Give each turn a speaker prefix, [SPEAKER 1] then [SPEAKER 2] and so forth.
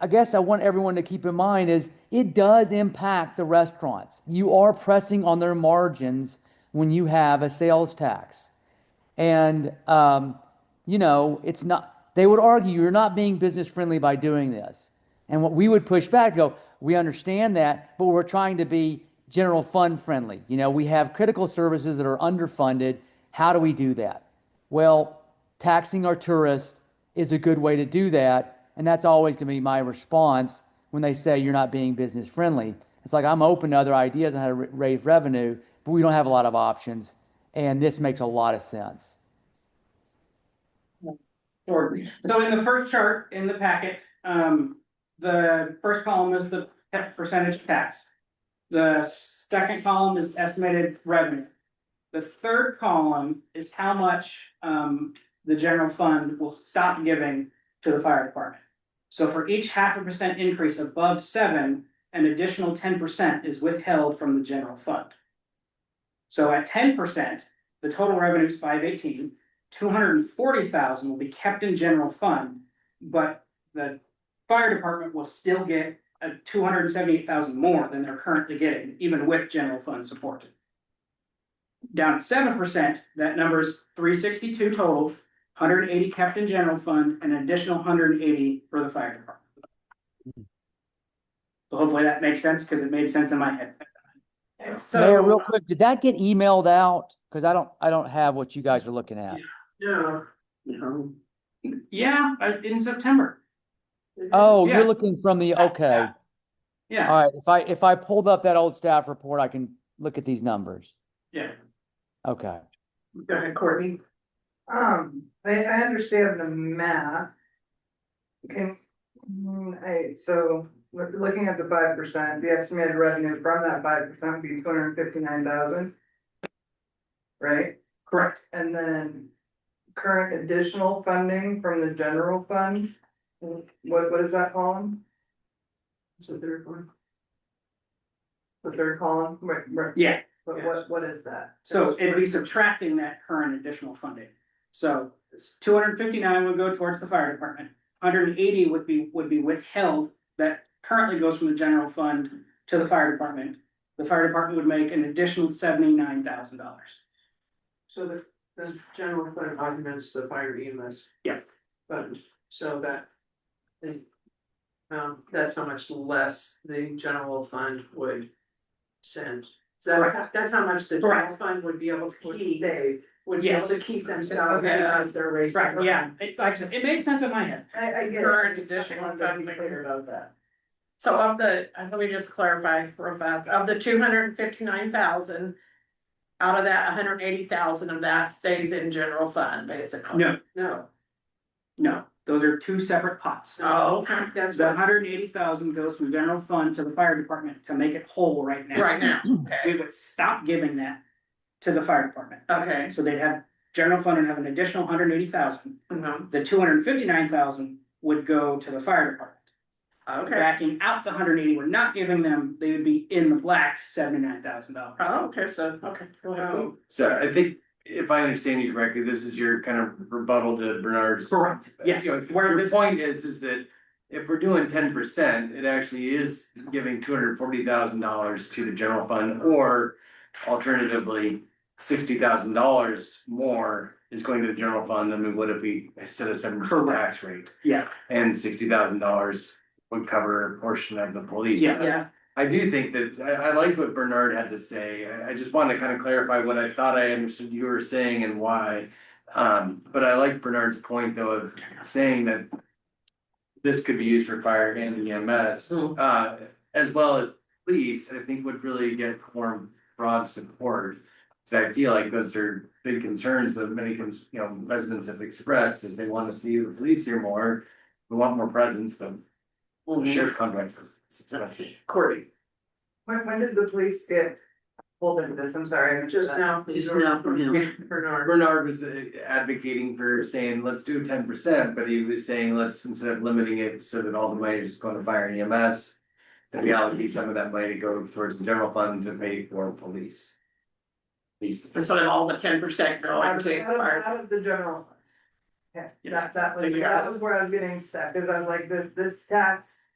[SPEAKER 1] I guess I want everyone to keep in mind is it does impact the restaurants. You are pressing on their margins when you have a sales tax. And, um, you know, it's not, they would argue you're not being business friendly by doing this. And what we would push back, go, we understand that, but we're trying to be general fund friendly. You know, we have critical services that are underfunded. How do we do that? Well, taxing our tourists is a good way to do that. And that's always going to be my response when they say you're not being business friendly. It's like I'm open to other ideas on how to ra- raise revenue, but we don't have a lot of options. And this makes a lot of sense.
[SPEAKER 2] Jordan.
[SPEAKER 3] So in the first chart in the packet, um, the first column is the pe- percentage tax. The second column is estimated revenue. The third column is how much, um, the general fund will stop giving to the fire department. So for each half a percent increase above seven, an additional ten percent is withheld from the general fund. So at ten percent, the total revenue is five eighteen two hundred and forty thousand will be kept in general fund, but the fire department will still get a two hundred and seventy-eight thousand more than they're currently getting, even with general fund support. Down at seven percent, that number's three sixty-two total, hundred and eighty kept in general fund, and an additional hundred and eighty for the fire department. So hopefully that makes sense, because it made sense in my head.
[SPEAKER 1] Mayor, real quick, did that get emailed out? Because I don't, I don't have what you guys are looking at.
[SPEAKER 3] Yeah.
[SPEAKER 2] No.
[SPEAKER 3] Yeah, I- in September,
[SPEAKER 1] Oh, Uh,
[SPEAKER 3] Yeah.
[SPEAKER 1] you're looking from the, okay.
[SPEAKER 3] yeah.
[SPEAKER 1] All right. If I, if I pulled up that old staff report, I can look at these numbers.
[SPEAKER 3] Yeah.
[SPEAKER 1] Okay.
[SPEAKER 2] Go ahead, Courtney.
[SPEAKER 4] Um, I, I understand the math. Can, mm, I, so, look, looking at the five percent, the estimated revenue from that five percent would be two hundred and fifty-nine thousand. Right,
[SPEAKER 3] Correct.
[SPEAKER 4] and then current additional funding from the general fund, what, what is that column? It's the third one. The third column, right, right,
[SPEAKER 3] Yeah,
[SPEAKER 4] but what, what is that?
[SPEAKER 3] So it'd be subtracting that current additional funding. So two hundred and fifty-nine would go towards the fire department. Hundred and eighty would be, would be withheld that currently goes from the general fund to the fire department. The fire department would make an additional seventy-nine thousand dollars.
[SPEAKER 2] So the, the general fund augments the fire EMS.
[SPEAKER 3] Yeah.
[SPEAKER 2] Fund, so that. the- Um, that's how much less the general fund would send. So that's, how- that's how much the general
[SPEAKER 3] Correct.
[SPEAKER 2] fund would be able to keep, they would be able
[SPEAKER 3] Yes.
[SPEAKER 2] to keep themselves
[SPEAKER 3] Okay.
[SPEAKER 2] as they're raising.
[SPEAKER 3] Right, yeah, it, like I said, it made sense in my head.
[SPEAKER 4] I, I get. it.
[SPEAKER 5] Current
[SPEAKER 4] I just
[SPEAKER 5] additional
[SPEAKER 4] wanted to be
[SPEAKER 5] funding.
[SPEAKER 4] clear About that.
[SPEAKER 5] So of the, uh, let me just clarify real fast, of the two hundred and fifty-nine thousand. Out of that, hundred and eighty thousand of that stays in general fund, basically.
[SPEAKER 3] No.
[SPEAKER 2] No,
[SPEAKER 3] No, those are two separate pots.
[SPEAKER 5] Oh, okay.
[SPEAKER 2] that's
[SPEAKER 3] The
[SPEAKER 2] what,
[SPEAKER 3] hundred and eighty thousand goes from general fund to the fire department to make it whole right now.
[SPEAKER 5] right now, okay,
[SPEAKER 3] We would stop giving that to the fire department.
[SPEAKER 5] okay,
[SPEAKER 3] So they'd have, general fund would have an additional hundred and eighty thousand.
[SPEAKER 5] mhm,
[SPEAKER 3] the two hundred and fifty-nine thousand would go to the fire department.
[SPEAKER 5] okay,
[SPEAKER 3] Backing out the hundred and eighty, we're not giving them, they would be in the black seventy-nine thousand dollars.
[SPEAKER 5] oh, okay, so, okay, go ahead.
[SPEAKER 6] So I think if I understand you correctly, this is your kind of rebuttal to Bernard's.
[SPEAKER 3] Correct. Yes,
[SPEAKER 6] You know,
[SPEAKER 3] where
[SPEAKER 6] Your
[SPEAKER 3] this,
[SPEAKER 6] point is, is that if we're doing ten percent, it actually is giving two hundred forty thousand dollars to the general fund or alternatively, sixty thousand dollars more is going to the general fund than we would if we set a seven percent
[SPEAKER 3] Correct.
[SPEAKER 6] tax rate.
[SPEAKER 3] yeah,
[SPEAKER 6] And sixty thousand dollars would cover a portion of the police.
[SPEAKER 3] Yeah.
[SPEAKER 5] Yeah,
[SPEAKER 6] I do think that, I, I liked what Bernard had to say, I, I just wanted to kind of clarify what I thought I understood you were saying and why. Um, but I like Bernard's point though of saying that this could be used for fire and EMS,
[SPEAKER 5] Mm.
[SPEAKER 6] uh, as well as police, I think would really get more broad support. Cause I feel like those are big concerns that many, cons- you know, residents have expressed, is they wanna see the police here more, we want more presence, but the sheriff's contract is expensive.
[SPEAKER 2] Courtney,
[SPEAKER 4] When, when did the police get pulled into this? I'm sorry. I missed
[SPEAKER 2] just
[SPEAKER 4] that.
[SPEAKER 2] now.
[SPEAKER 7] Just now from him.
[SPEAKER 2] Bernard.
[SPEAKER 6] Bernard was uh, advocating for saying, let's do ten percent, but he was saying, let's, instead of limiting it so that all the money is going to fire and EMS. That we allocate some of that money to go towards the general fund to pay for police. Police.
[SPEAKER 5] instead of all the ten percent
[SPEAKER 4] Out
[SPEAKER 5] going
[SPEAKER 4] of,
[SPEAKER 5] to,
[SPEAKER 4] out of-
[SPEAKER 5] fire.
[SPEAKER 4] out of the general. fund. Yeah,
[SPEAKER 3] Yeah.
[SPEAKER 4] that, that was,
[SPEAKER 5] Maybe
[SPEAKER 4] that
[SPEAKER 5] out.
[SPEAKER 4] was where I was getting stuck, cause I was like, this, this tax